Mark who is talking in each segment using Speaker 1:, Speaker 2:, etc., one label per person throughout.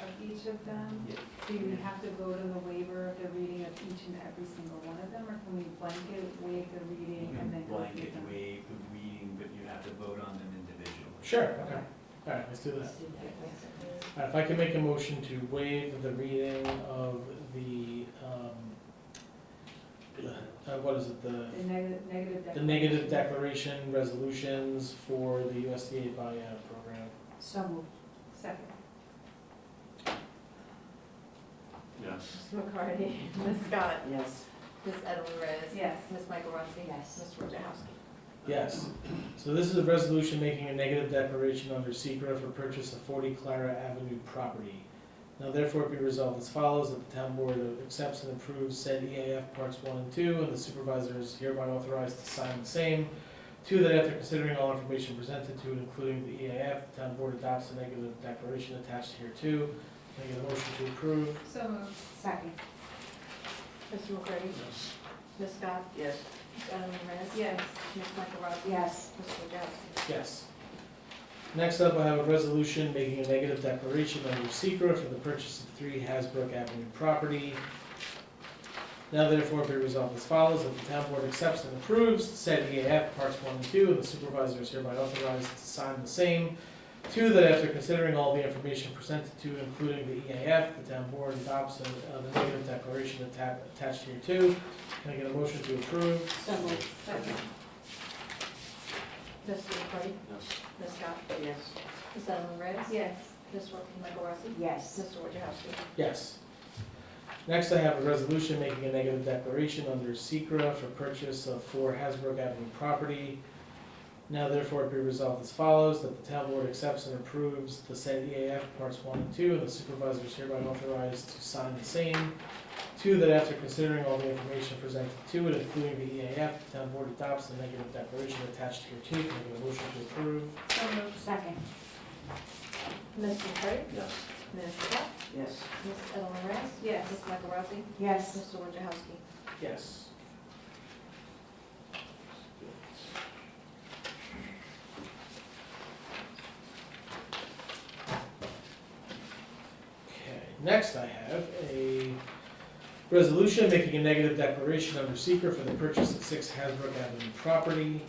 Speaker 1: of them?
Speaker 2: Yeah.
Speaker 1: Do we have to vote on the waiver of the reading of each and every single one of them, or can we blanket waive the
Speaker 2: You
Speaker 1: reading and
Speaker 2: can
Speaker 1: then go through
Speaker 2: Mm-hmm. blanket
Speaker 1: them?
Speaker 2: waive the reading, but you have to vote on them individually.
Speaker 3: Sure, okay. All right, let's do that. All right, If I can make a motion to waive the reading of the, um, uh, what is it, the,
Speaker 1: The negative, negative
Speaker 3: the negative declaration resolutions for the USDA buyout program.
Speaker 4: So moved.
Speaker 1: Second.
Speaker 2: Yes.
Speaker 5: Ms. McCarty, Ms. Scott,
Speaker 4: Yes.
Speaker 5: Ms. Edelman Reyes.
Speaker 1: Yes.
Speaker 5: Ms. Michael Rotzi.
Speaker 4: Yes.
Speaker 5: Ms. Wojciechowski.
Speaker 3: Yes. So this is a resolution making a negative declaration under secret for purchase of 40 Clara Avenue property. Now therefore be resolved as follows, that the town board accepts and approves said EAF parts one and two, and the supervisor is hereby authorized to sign the same. Two, that after considering all information presented to it, including the EAF, the town board adopts a negative declaration attached here too. Can I get a motion to approve?
Speaker 1: So moved.
Speaker 4: Second.
Speaker 5: Mr. McCarty. Ms. Scott,
Speaker 4: Yes.
Speaker 5: Ms. Edelman Reyes.
Speaker 1: Yes.
Speaker 5: Ms. Michael Rotzi.
Speaker 4: Yes.
Speaker 5: Ms. Wojciechowski.
Speaker 3: Yes. Next up, I have a resolution making a negative declaration under secret for the purchase of three Hasbrook Avenue property. Now therefore be resolved as follows, that the town board accepts and approves said EAF parts one and two, and the supervisor is hereby authorized to sign the same. Two, that after considering all the information presented to, including the EAF, the town board adopts uh, the negative declaration atta- attached here too. Can I get a motion to approve?
Speaker 4: So moved.
Speaker 1: Second.
Speaker 5: Mr. McCarty.
Speaker 2: Yes.
Speaker 5: Ms. Scott,
Speaker 4: Yes.
Speaker 5: Ms. Edelman Reyes.
Speaker 1: Yes.
Speaker 5: Ms. Wo- Michael Rotzi.
Speaker 4: Yes.
Speaker 5: Mr. Wojciechowski.
Speaker 3: Yes. Next, I have a resolution making a negative declaration under secra for purchase of four Hasbrook Avenue property. Now therefore be resolved as follows, that the town board accepts and approves the said EAF parts one and two, and the supervisor is hereby authorized to sign the same. Two, that after considering all the information presented to it, including the EAF, the town board adopts the negative declaration attached here too. Can I get a motion to approve?
Speaker 1: So moved.
Speaker 4: Second.
Speaker 5: Mr. McCarty.
Speaker 2: Yes.
Speaker 5: Ms. Scott,
Speaker 4: Yes.
Speaker 5: Ms. Edelman Reyes.
Speaker 1: Yes.
Speaker 5: Ms. Michael Rotzi.
Speaker 4: Yes.
Speaker 5: Mr. Wojciechowski.
Speaker 3: Yes. Okay, next I have a resolution making a negative declaration under seeker for the purchase of six Hasbrook Avenue property.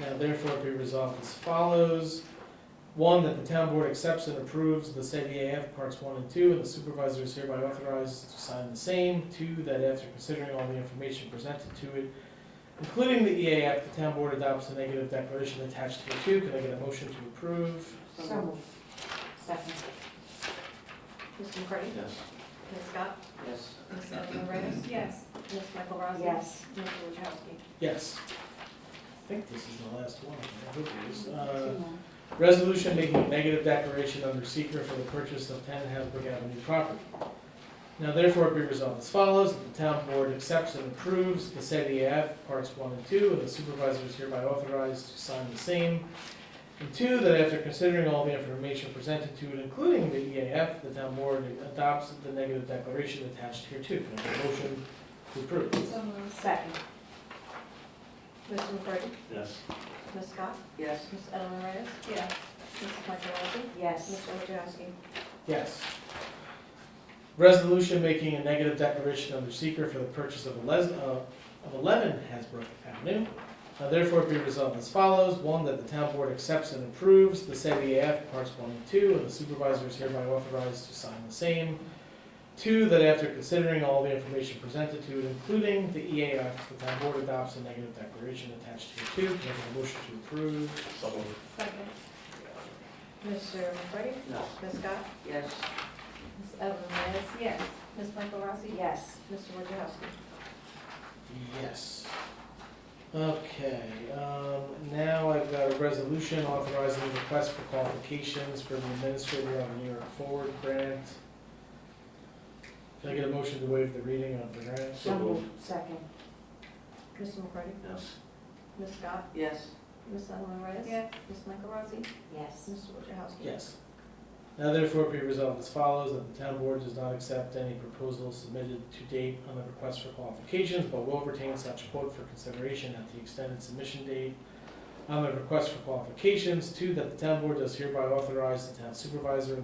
Speaker 3: Now therefore be resolved as follows. One, that the town board accepts and approves the said EAF parts one and two, and the supervisor is hereby authorized to sign the same. Two, that after considering all the information presented to it, including the EAF, the town board adopts the negative declaration attached hereto. Can I get a motion to approve?
Speaker 4: So moved. Second.
Speaker 5: Mr. McCarty.
Speaker 2: Yes.
Speaker 5: Ms. Scott,
Speaker 4: Yes.
Speaker 5: Ms. Edelman Reyes.
Speaker 1: Yes.
Speaker 5: Ms. Michael Rotzi.
Speaker 4: Yes.
Speaker 5: Mr. Wojciechowski.
Speaker 3: Yes. I think this is the last one. I hope it is.
Speaker 4: Two
Speaker 3: Uh,
Speaker 4: more.
Speaker 3: Resolution making a negative declaration under secret for the purchase of ten Hasbrook Avenue property. Now therefore be resolved as follows, that the town board accepts and approves the said EAF parts one and two, and the supervisor is hereby authorized to sign the same. And two, that after considering all the information presented to it, including the EAF, the town board adopts the negative declaration attached here too. Can I have a motion to approve?
Speaker 1: So moved.
Speaker 4: Second.
Speaker 5: Mr. McCarty.
Speaker 2: Yes.
Speaker 5: Ms. Scott,
Speaker 4: Yes.
Speaker 5: Ms. Edelman Reyes.
Speaker 1: Yes.
Speaker 5: Ms. Michael Rotzi.
Speaker 4: Yes.
Speaker 5: Mr. Wojciechowski.
Speaker 3: Yes. Resolution making a negative declaration under seeker for the purchase of eleven, uh, of eleven Hasbrook Avenue. Now therefore be resolved as follows, one, that the town board accepts and approves the said EAF parts one and two, and the supervisor is hereby authorized to sign the same. Two, that after considering all the information presented to it, including the EAF, the town board adopts a negative declaration attached here too. Can I get a motion to approve?
Speaker 1: Second.
Speaker 5: Mr. McCarty.
Speaker 2: Yes.
Speaker 5: Ms. Scott,
Speaker 4: Yes.
Speaker 5: Ms. Edelman Reyes.
Speaker 1: Yes.
Speaker 5: Ms. Michael Rossi?
Speaker 4: Yes.
Speaker 5: Mr. Wojciechowski?
Speaker 3: Yes. Okay, um, now I've got a resolution authorizing the request for qualifications for the administrator of the New York Forward Grant. Can I get a motion to waive the reading of the grant?
Speaker 4: So moved. Second.
Speaker 5: Mr. McCarty?
Speaker 2: Yes.
Speaker 5: Ms. Scott?
Speaker 4: Yes.
Speaker 5: Ms. Edelman Reyes?
Speaker 1: Yes.
Speaker 5: Ms. Michael Rossi?
Speaker 4: Yes.
Speaker 5: Mr. Wojciechowski?
Speaker 3: Yes. Now therefore be resolved as follows, that the town board does not accept any proposals submitted to date on the request for qualifications, but will retain such quote for consideration at the extended submission date on the request for qualifications. Two, that the town board does hereby authorize the town supervisor